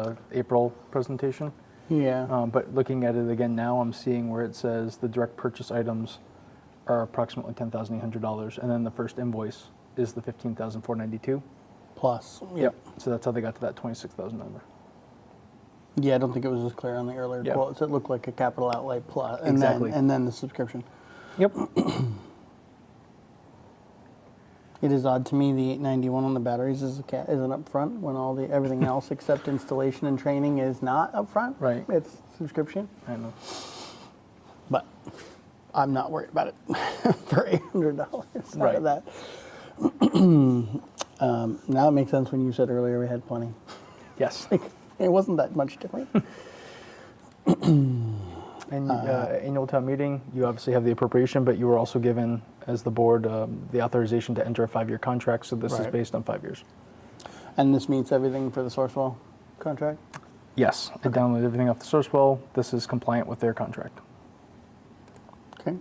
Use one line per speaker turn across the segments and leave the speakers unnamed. uh, April presentation.
Yeah,
Um, But looking at it again now, I'm seeing where it says the direct purchase items are approximately $10,800. And then the first invoice is the $15,492.
plus.
So that's how they got to that 26,000 number.
Yeah, I don't think it was as clear on the earlier
Yeah.
quotes. It looked like a capital outlay plus, and
Exactly.
then and then the subscription.
Yep.
It is odd to me the 891 on the batteries is a ca- is an upfront when all the everything else except installation and training is not upfront.
Right.
It's subscription,
I know.
but I'm not worried about it for $800 out
Right.
of that. um, now it makes sense when you said earlier we had plenty.
Yes.
It wasn't that much different.
And uh, annual town meeting, you obviously have the appropriation, but you were also given, as the board, um, the authorization to enter a five-year contract. So this is
Right.
based on five years.
and this meets everything for the Sourcewell contract.
Yes, I downloaded everything off the source well. This is compliant with their contract.
Okay.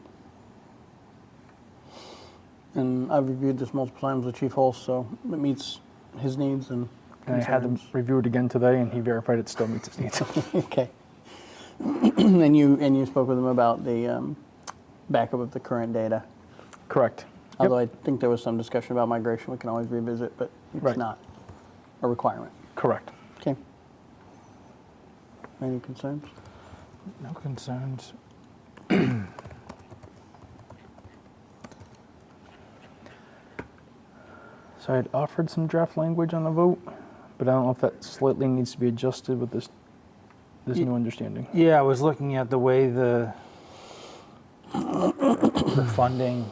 And I've reviewed this multiple times with Chief Hulse, so it meets his needs and
And I had them
concerns.
review it again today, and he verified it still meets its needs.
okay. and you and you spoke with him about the um, backup of the current data.
Correct. Yep.
Although I think there was some discussion about migration, we can always revisit, but it's
Right.
not a requirement.
Correct.
Okay. Any concerns?
No concerns. So I had offered some draft language on the vote, but I don't know if that slightly needs to be adjusted with this, this
Ye-
new understanding.
Yeah, I was looking at the way the the funding.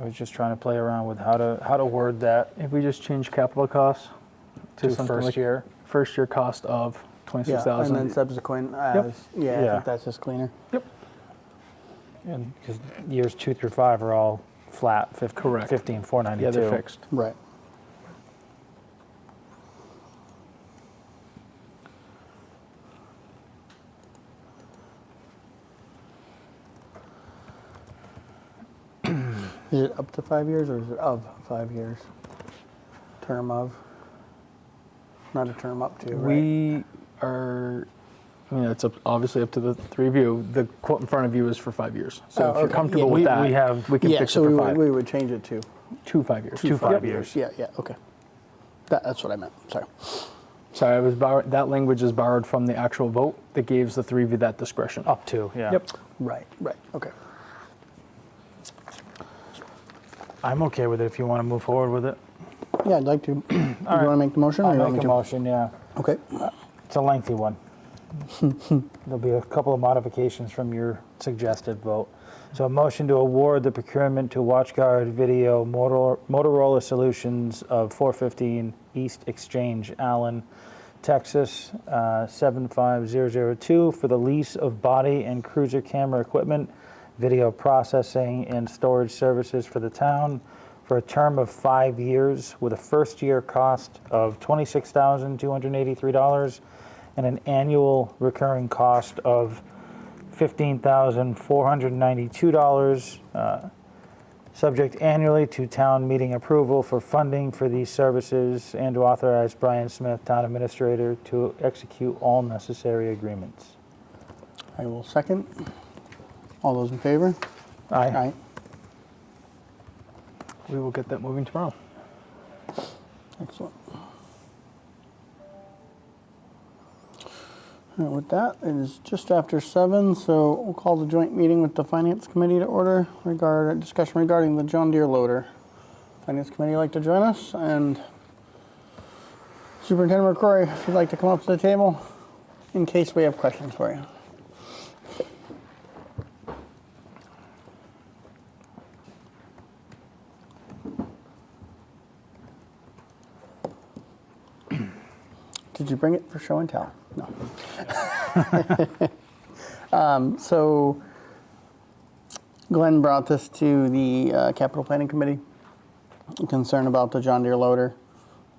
I was just trying to play around with how to how to word that
If we just change capital costs to
to
something
first
like
year.
first year cost of
yeah,
twenty-six
and then
thousand.
subsequent. As, Yeah, I
Yeah.
think that's just cleaner.
And because years two through five are all flat, 15,
Correct.
15 492.
Yeah, they're fixed.
Right. Is it up to five years or is it of five years? Term of? Not a term up to, right?
We are, I mean, it's up, obviously up to the three of you. The quote in front of you is for five years. So
Oh,
if you're
okay.
comfortable
Yeah,
with
we-
that,
Uh, we have-
we can
Yeah,
fix
so
it
we
for
would,
five.
we would change it to
two five years.
Two five
Yep.
years.
Yeah, yeah, okay. That, that's what I meant, sorry.
Sorry, I was borrow- that language is borrowed from the actual vote that gives the three of you that discretion.
Up to, Oh, yeah.
Yep.
Right, right, okay.
I'm okay with it if you want to move forward with it.
Yeah, I'd like to, do you want to
right.
make the motion? or
I'll
you want
make
me
a motion, yeah.
to? Okay,
It's a lengthy one. There'll be a couple of modifications from your suggested vote. So a motion to award the procurement to WatchGuard Video Motor- Motorola Solutions of 415 East Exchange, Allen, Texas, uh, 75002 for the lease of body and cruiser camera equipment, video processing and storage services for the town for a term of five years with a first-year cost of $26,283 and an annual recurring cost of $15,492, uh, subject annually to town meeting approval for funding for these services and to authorize Brian Smith, town administrator, to execute all necessary agreements.
I will second. All those in favor?
Aye.
Aye.
We will get that moving tomorrow.
Excellent. All right, with that, it is just after seven, so we'll call the joint meeting with the Finance Committee to order regard, discussion regarding the John Deere loader. Finance Committee like to join us, and Superintendent McCrory, if you'd like to come up to the table in case we have questions for you. Did you bring it for show and tell? No. um, so Glenn brought this to the uh, Capital Planning Committee. Concern about the John Deere loader,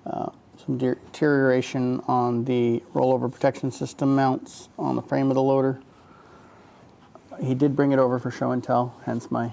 uh, some de- deterioration on the rollover protection system mounts on the frame of the loader. he did bring it over for show and tell, hence my